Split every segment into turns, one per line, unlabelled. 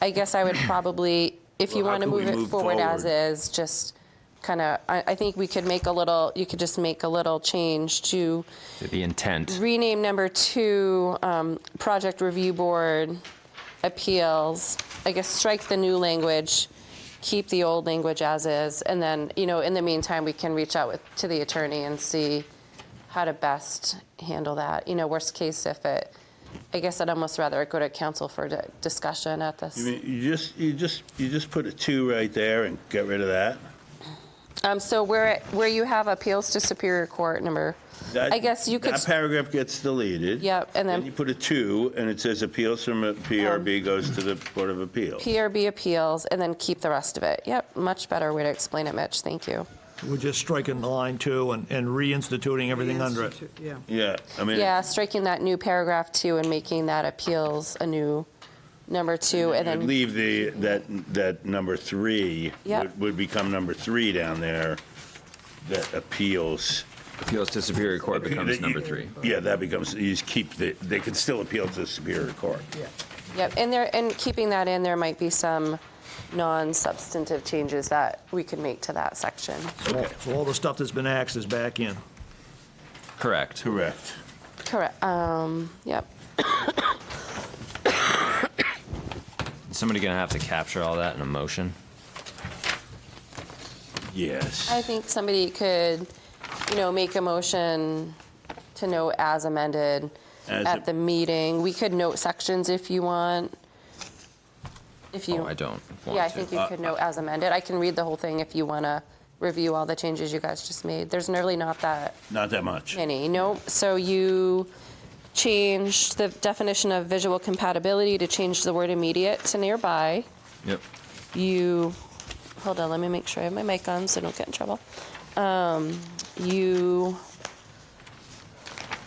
I guess I would probably, if you
Well, how
want to
could we
move it
move
forward as
forward?
is, just kind of, I, I think we could make a little, you could just make a little change to
The intent.
rename number two, um, Project Review Board Appeals. I guess strike the new language, keep the old language as is, and then, you know, in the meantime, we can reach out with, to the attorney and see how to best handle that. You know, worst case if it, I guess I'd almost rather it go to council for di- discussion at this.
I mean, You just, you just, you just put a two right there and get rid of that.
Um, so where, where you have appeals to Superior Court number,
That-
I guess you could,
That paragraph gets deleted.
Yep, and then- Um,
you put a two, and it says appeals from a PRB goes to the Board of Appeals.
PRB appeals, and then keep the rest of it. Yep, much better way to explain it, Mitch, thank you.
We're just striking the line two and, and reinstituting everything under it.
Yeah.
Yeah, I mean.
Yeah, striking that new paragraph two and making that appeals a new number two, and
I'd
then,
leave the, that, that number three.
Yep.
would- Would become number three down there, that appeals.
Appeals to Superior Court becomes
That you-
number three.
Yeah, that becomes, you just keep, the they can still appeal to the Superior Court.
yep, and there, and keeping that in, there might be some non-substantive changes that we could make to that section.
So all the stuff that's been axed is back in.
Correct.
Correct.
Correct, um, yep.
Is Somebody gonna have to capture all that in a motion?
Yes.
I think somebody could, you know, make a motion to note as amended
As
at
a-
the meeting. We could note sections if you want. If you.
Oh, I don't want to.
Yeah, I think you could note as amended. I can read the whole thing if you want to review all the changes you guys just made. There's nearly not that
Not that much.
many, nope. So you changed the definition of visual compatibility to change the word immediate to nearby
Yep.
you, hold on, let me make sure I have my mic on so I don't get in trouble. Um, you,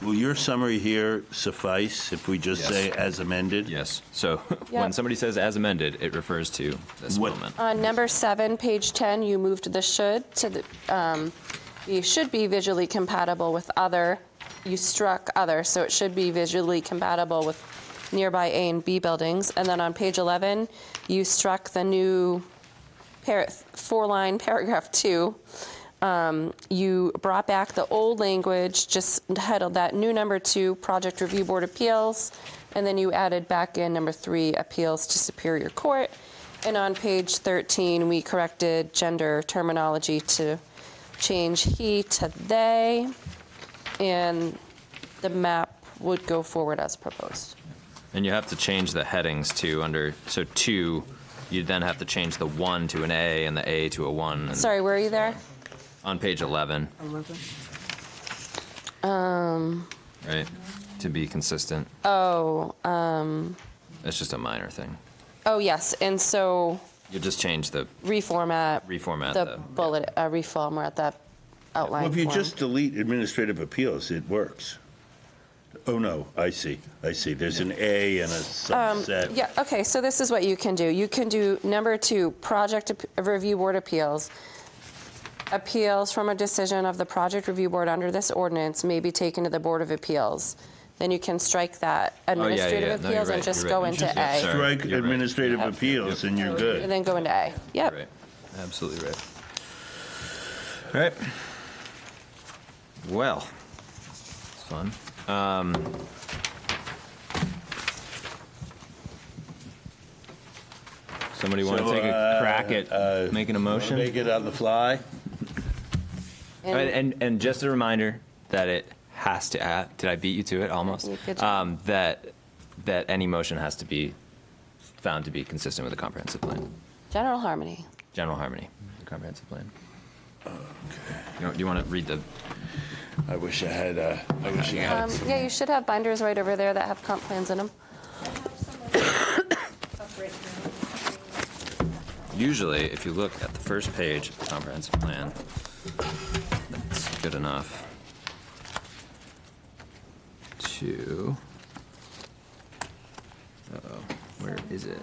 Will your summary here suffice if we just
Yes.
say as amended?
Yes. So when
Yep.
somebody says as amended, it refers to this
What-
moment.
on number seven, page 10, you moved the should to the, um, you should be visually compatible with other. You struck other, so it should be visually compatible with nearby A and B buildings. And then on page 11, you struck the new par- four line paragraph two. Um, you brought back the old language, just titled that new number two, Project Review Board Appeals, and then you added back in number three, Appeals to Superior Court. And on page 13, we corrected gender terminology to change he to they, and the map would go forward as proposed.
And you have to change the headings too under, so two, you then have to change the one to an A and the A to a one. and-
Sorry, were you there?
On page 11,
11.
right? To be consistent.
Oh, uh,
It's just a minor thing.
oh, yes, and so
You just change the
reformat.
reformat.
the bullet, uh, reformat, that outline.
Well, if you
form.
just delete administrative appeals, it works. Oh, no, I see, I see. There's an A and a subset.
Um, Yeah, okay, so this is what you can do. You can do number two, project ap- review board appeals. Appeals from a decision of the project review board under this ordinance may be taken to the Board of Appeals. Then you can strike that
Oh, yeah, yeah,
administrative
yeah. No, you're
appeals and
right,
just
you're
go
right.
into
Just-
A.
sorry.
Strike
You're right.
administrative
Yep.
appeals and you're
And
good.
then go into A.
Right.
Yep,
Absolutely right. All right. Well, it's fun. Um, somebody want to
So,
take a crack at making a motion?
Make it on the fly?
And,
and
and and just a reminder that it has to. Uh, did I beat you to it almost?
You did.
Um, that that any motion has to be found to be consistent with the comprehensive plan,
general harmony.
general harmony, the Mm-hmm. comprehensive plan. You know, do you want to read the?
I wish I had, uh, I wish I had.
Um, Yeah, you should have binders right over there that have comp plans in them.
Usually, if you look at the first page of the comprehensive plan, that's good enough. Two. Uh-oh, where is it?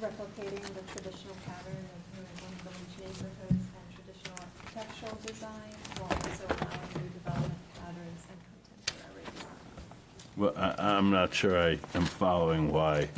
replicating the traditional pattern of New England village neighborhoods and traditional architectural design, while also allowing new development patterns and contemporary design.
Well, I, I'm not sure I am following why